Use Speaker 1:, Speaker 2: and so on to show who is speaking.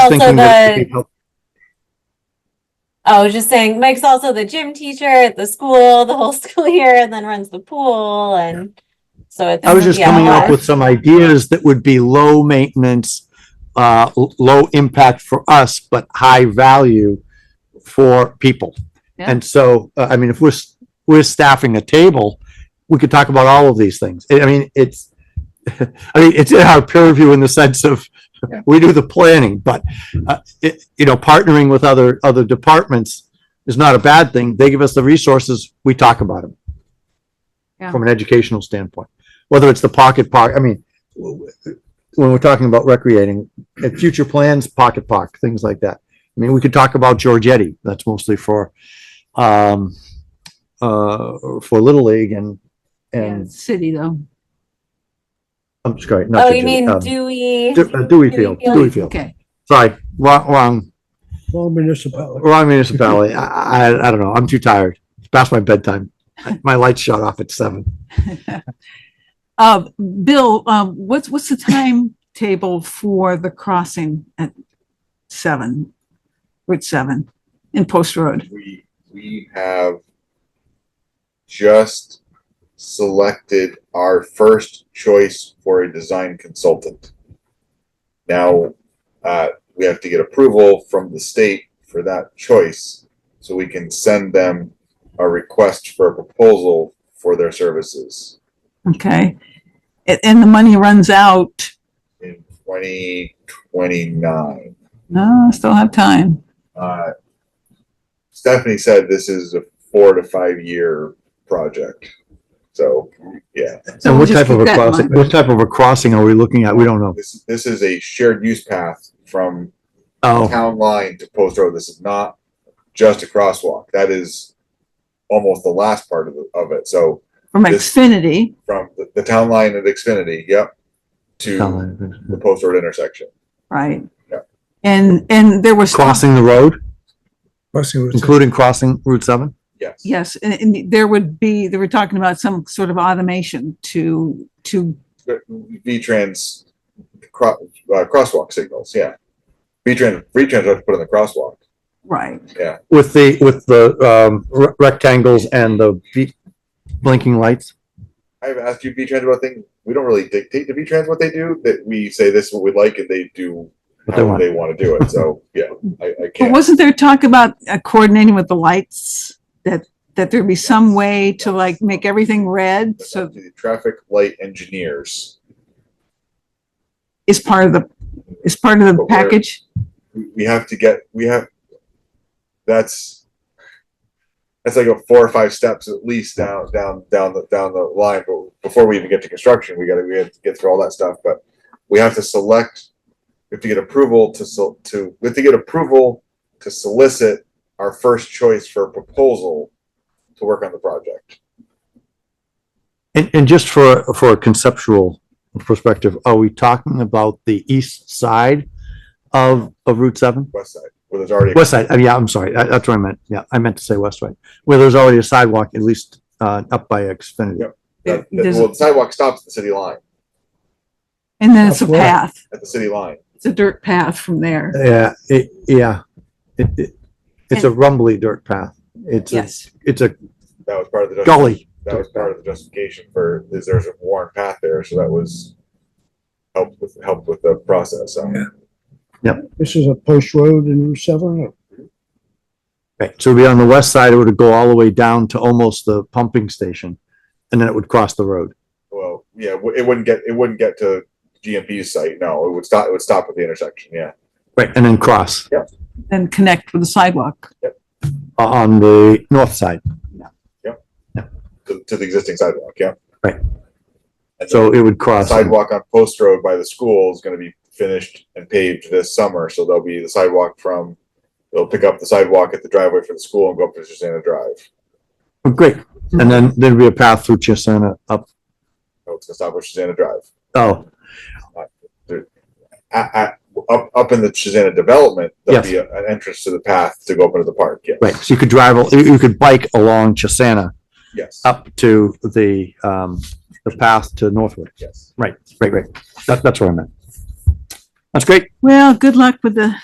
Speaker 1: Also
Speaker 2: thinking that it
Speaker 1: the-
Speaker 2: could be help-
Speaker 1: I was just saying, Mike's also the gym teacher at the school the whole school year, and then runs the pool, and so it's.
Speaker 2: I was just
Speaker 1: yeah,
Speaker 2: coming
Speaker 1: a
Speaker 2: up
Speaker 1: lot.
Speaker 2: with some ideas that would be low maintenance, uh, l- low impact for us, but high value for people.
Speaker 3: Yeah.
Speaker 2: And so, uh, I mean, if we're, s- we're staffing a table, we could talk about all of these things. I I mean, it's, I mean, it's in our purview in the sense of,
Speaker 3: Yeah.
Speaker 2: we do the planning, but, uh, it, you know, partnering with other, other departments is not a bad thing. They give us the resources, we talk about them.
Speaker 3: Yeah.
Speaker 2: From an educational standpoint, whether it's the pocket park, I mean, w- w- when we're talking about recreating, and future plans, pocket park, things like that. I mean, we could talk about Giorgetti, that's mostly for, um, uh, for Little League and,
Speaker 3: Yeah,
Speaker 2: and,
Speaker 3: it's city though.
Speaker 2: I'm sorry, not
Speaker 1: Oh, you
Speaker 2: Giorgetti,
Speaker 1: mean
Speaker 2: um,
Speaker 1: Dewey?
Speaker 2: Du- uh, Dewey Field,
Speaker 1: Dewey Field.
Speaker 2: Dewey Field,
Speaker 3: Okay.
Speaker 2: sorry, wrong, wrong,
Speaker 4: Well, municipality.
Speaker 2: wrong municipality, I, I, I don't know, I'm too tired, it's past my bedtime. My lights shut off at seven.
Speaker 3: Uh, Bill, um, what's, what's the timetable for the crossing at seven? Route seven in Post Road?
Speaker 5: we we have just selected our first choice for a design consultant. Now, uh, we have to get approval from the state for that choice, so we can send them a request for a proposal for their services
Speaker 3: Okay. And, and the money runs out.
Speaker 5: in twenty twenty-nine.
Speaker 3: No, I still have time.
Speaker 5: Uh, Stephanie said this is a four to five-year project, so, yeah.
Speaker 3: So
Speaker 2: And
Speaker 3: we'll
Speaker 2: what
Speaker 3: just
Speaker 2: type of
Speaker 3: keep
Speaker 2: a
Speaker 3: that in
Speaker 2: crossing,
Speaker 3: mind.
Speaker 2: what type of a crossing are we looking at? We don't know.
Speaker 5: This, this is a shared use path from
Speaker 2: Oh,
Speaker 5: town line to post road. This is not just a crosswalk. That is almost the last part of, the- of it. So
Speaker 3: From
Speaker 5: This-
Speaker 3: Xfinity,
Speaker 5: from the, the town line at Xfinity, yep, to the
Speaker 2: crossing
Speaker 5: post road intersection.
Speaker 3: right?
Speaker 5: Yeah.
Speaker 3: And, and there was.
Speaker 2: the road,
Speaker 4: Crossing roads.
Speaker 2: including crossing Route seven?
Speaker 5: Yes.
Speaker 3: Yes, and, and there would be, they were talking about some sort of automation to, to,
Speaker 5: V-Trans cro- uh, crosswalk signals, yeah. V-Trans, V-Trans have to put in the crosswalk.
Speaker 3: right,
Speaker 2: With the, with the, um, re- rectangles and the be- blinking lights?
Speaker 5: I've asked you V-Trans about things. We don't really dictate to V-Trans what they do, that we say this is what we like and they do
Speaker 2: What they
Speaker 5: how
Speaker 2: want.
Speaker 5: they want to do it. So, yeah, I, I
Speaker 3: But
Speaker 5: can't.
Speaker 3: wasn't there talk about uh, coordinating with the lights? That, that there'd be some way to like make everything red,
Speaker 5: That's
Speaker 3: so
Speaker 5: up to the traffic light engineers.
Speaker 3: is part of the, is part of the
Speaker 5: But where-
Speaker 3: package?
Speaker 5: We we have to get, we have, that's, that's like a four or five steps at least down, down, down the, down the line. But before we even get to construction, we gotta, we have to get through all that stuff. But we have to select, we have to get approval to, sol- to, we have to get approval to solicit our first choice for a proposal to work on the project.
Speaker 2: And, and just for, for a conceptual perspective, are we talking about the east side of, of Route seven?
Speaker 5: West side, where there's already. a
Speaker 2: West side, uh, yeah, I'm sorry, that- that's what I meant, yeah, I meant to say west side, where there's already a sidewalk, at least, uh, up by Xfinity.
Speaker 5: Yep. that- that-
Speaker 3: There's-
Speaker 5: Well, the sidewalk stops at the city line,
Speaker 3: And then it's a
Speaker 4: That's right.
Speaker 3: path,
Speaker 5: at the city line.
Speaker 3: it's a dirt path from there.
Speaker 2: Yeah, it, yeah, it, it, it's a rumbly dirt path. It's a,
Speaker 3: Yes,
Speaker 2: it's a
Speaker 5: That was part of the. justification.
Speaker 2: gully.
Speaker 5: that was part of the justification for is there's a worn path there, so that was helped with helped with the process. um, So
Speaker 4: Yeah. This is a post road in Route seven.
Speaker 2: Right, so it'd be on the west side, it would go all the way down to almost the pumping station, and then it would cross the road.
Speaker 5: well, yeah, w- it wouldn't get it wouldn't get to GMP's site. No, it would stop. It would stop at the intersection. Yeah,
Speaker 2: Right. And then cross
Speaker 3: then connect with the sidewalk.
Speaker 2: o- on the north side.
Speaker 5: to, to the existing sidewalk. Yeah.
Speaker 2: Right.
Speaker 5: And
Speaker 2: So it would
Speaker 5: the
Speaker 2: cross.
Speaker 5: sidewalk on Post Road by the school is going to be finished and paved this summer. So there'll be the sidewalk from. They'll pick up the sidewalk at the driveway for the school and go up to Susanna Drive.
Speaker 2: Oh, Great, and then there'd be a path through Chisana up,
Speaker 5: Oh, it's going to stop at Susanna Drive.
Speaker 2: oh,
Speaker 5: at, at, up, up in the Susanna development, there'll
Speaker 2: Yes.
Speaker 5: be a, an entrance to the path to go up into the park. Yes.
Speaker 2: right, so you could drive, al- you you could bike along Chisana
Speaker 5: Yes.
Speaker 2: up to the, um, the path to Northwood.
Speaker 5: Yes.
Speaker 2: Right, right, right, that, that's what I meant. That's great.
Speaker 3: Well, good luck with the